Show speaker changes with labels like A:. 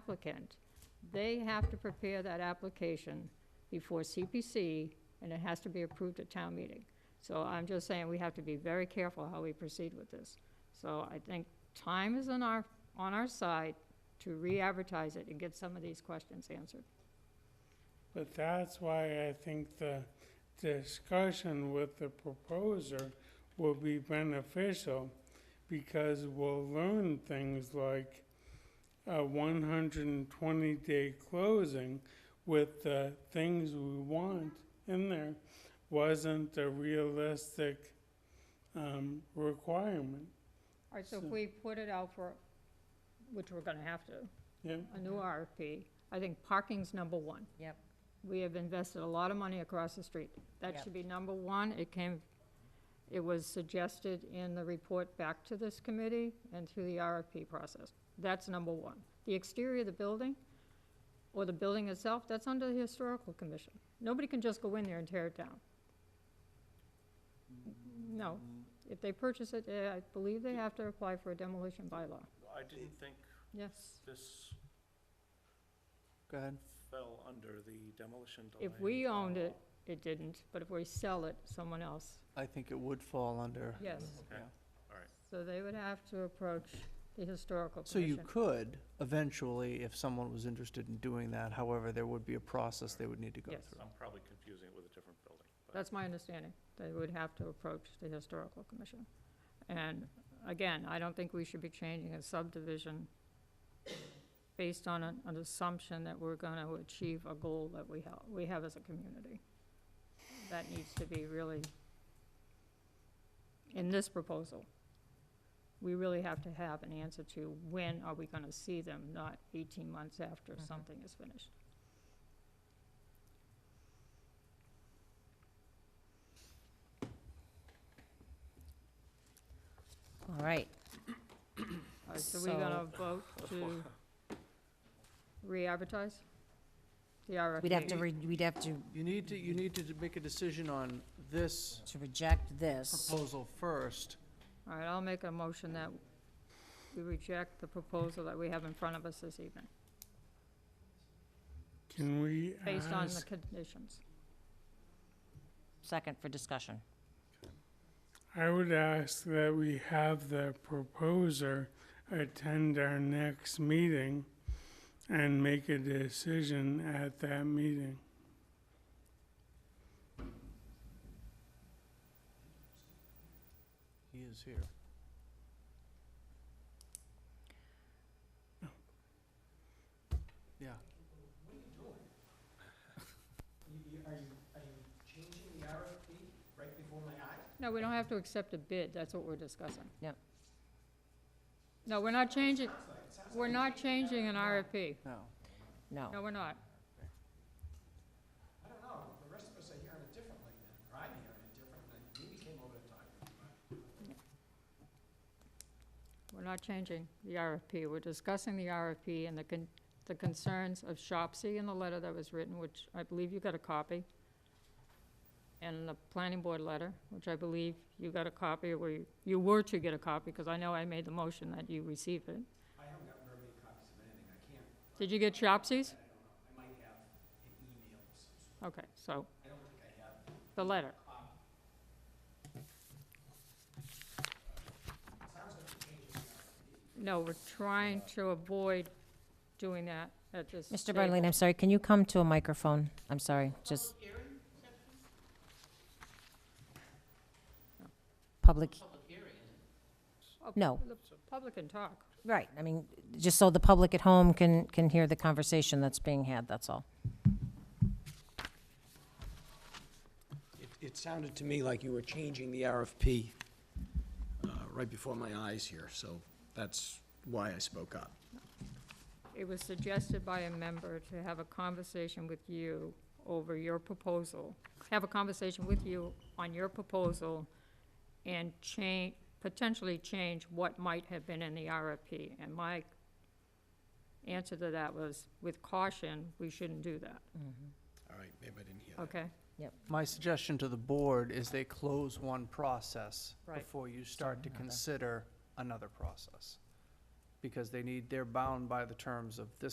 A: applicant, they have to prepare that application before CPC, and it has to be approved at town meeting. So I'm just saying, we have to be very careful how we proceed with this. So I think time is on our, on our side to re-advertise it and get some of these questions answered.
B: But that's why I think the discussion with the proposer will be beneficial because we'll learn things like a one hundred and twenty day closing with the things we want in there wasn't a realistic um, requirement.
A: All right, so if
B: So-
A: we put it out for, which we're gonna have to,
B: Yeah,
A: a new RFP, I think parking's number one.
C: Yep.
A: We have invested a lot of money across the street. That
C: Yep.
A: should be number one. It came, it was suggested in the report back to this committee and through the RFP process. That's number one. The exterior of the building, or the building itself, that's under the historical commission. Nobody can just go in there and tear it down. No. If they purchase it, eh, I believe they have to apply for a demolition bylaw.
D: I didn't think
A: Yes.
D: this
E: Go ahead.
D: fell under the demolition delay.
A: If we owned it, it didn't, but if we sell it, someone else,
E: I think it would fall under.
A: yes.
D: Okay.
A: So they would have to approach the historical
E: So you
A: commission.
E: could eventually, if someone was interested in doing that, however, there would be a process they would need to go
A: Yes.
E: through.
D: I'm probably confusing it with a different building. but-
A: That's my understanding. They would have to approach the historical commission. And again, I don't think we should be changing a subdivision based on an, an assumption that we're gonna achieve a goal that we have, we have as a community. That needs to be really, in this proposal, we really have to have an answer to when are we gonna see them, not eighteen months after
C: Mhm.
A: something is finished.
C: All right,
A: All right, so we're gonna vote to re-advertise the RFP.
C: we'd have to, re- we'd have to,
E: You need to, you need to make a decision on this
C: to reject this.
E: proposal first.
A: All right, I'll make a motion that we reject the proposal that we have in front of us this evening,
B: can we
C: Ah,
A: based on the
B: ask,
A: conditions.
C: Second for discussion.
B: I would ask that we have the proposer attend our next meeting and make a decision at that meeting.
E: He is here. Yeah.
A: No, we don't have to accept a bid, that's what we're discussing.
C: Yep.
A: No, we're not changing, we're not changing an RFP.
E: No.
C: No.
A: No, we're not. We're not changing the RFP. We're discussing the RFP and the con- the concerns of Shopsy in the letter that was written, which I believe you got a copy, and the planning board letter, which I believe you got a copy, or you- you were to get a copy, because I know I made the motion that you receive it. I haven't gotten very many copies of anything. I can't. Did you get Shopsy's? I might have an email Okay, so. I don't think I have. The letter. No, we're trying to avoid doing that at this.
C: Mr.
A: table.
C: Berlin, I'm sorry, can you come to a microphone? I'm sorry, just. Public.
A: Oh,
C: No.
A: The public can talk.
C: Right, I mean, just so the public at home can, can hear the conversation that's being had, that's all.
F: It, it sounded to me like you were changing the RFP uh, right before my eyes here, so that's why I spoke up.
A: It was suggested by a member to have a conversation with you over your proposal, have a conversation with you on your proposal and change, potentially change what might have been in the RFP. And my answer to that was, with caution, we shouldn't do that,
F: All right, maybe I didn't hear that.
A: okay?
E: My suggestion to the board is they close one process
A: Right.
E: before you start to consider another process. Because they need, they're bound by the terms of this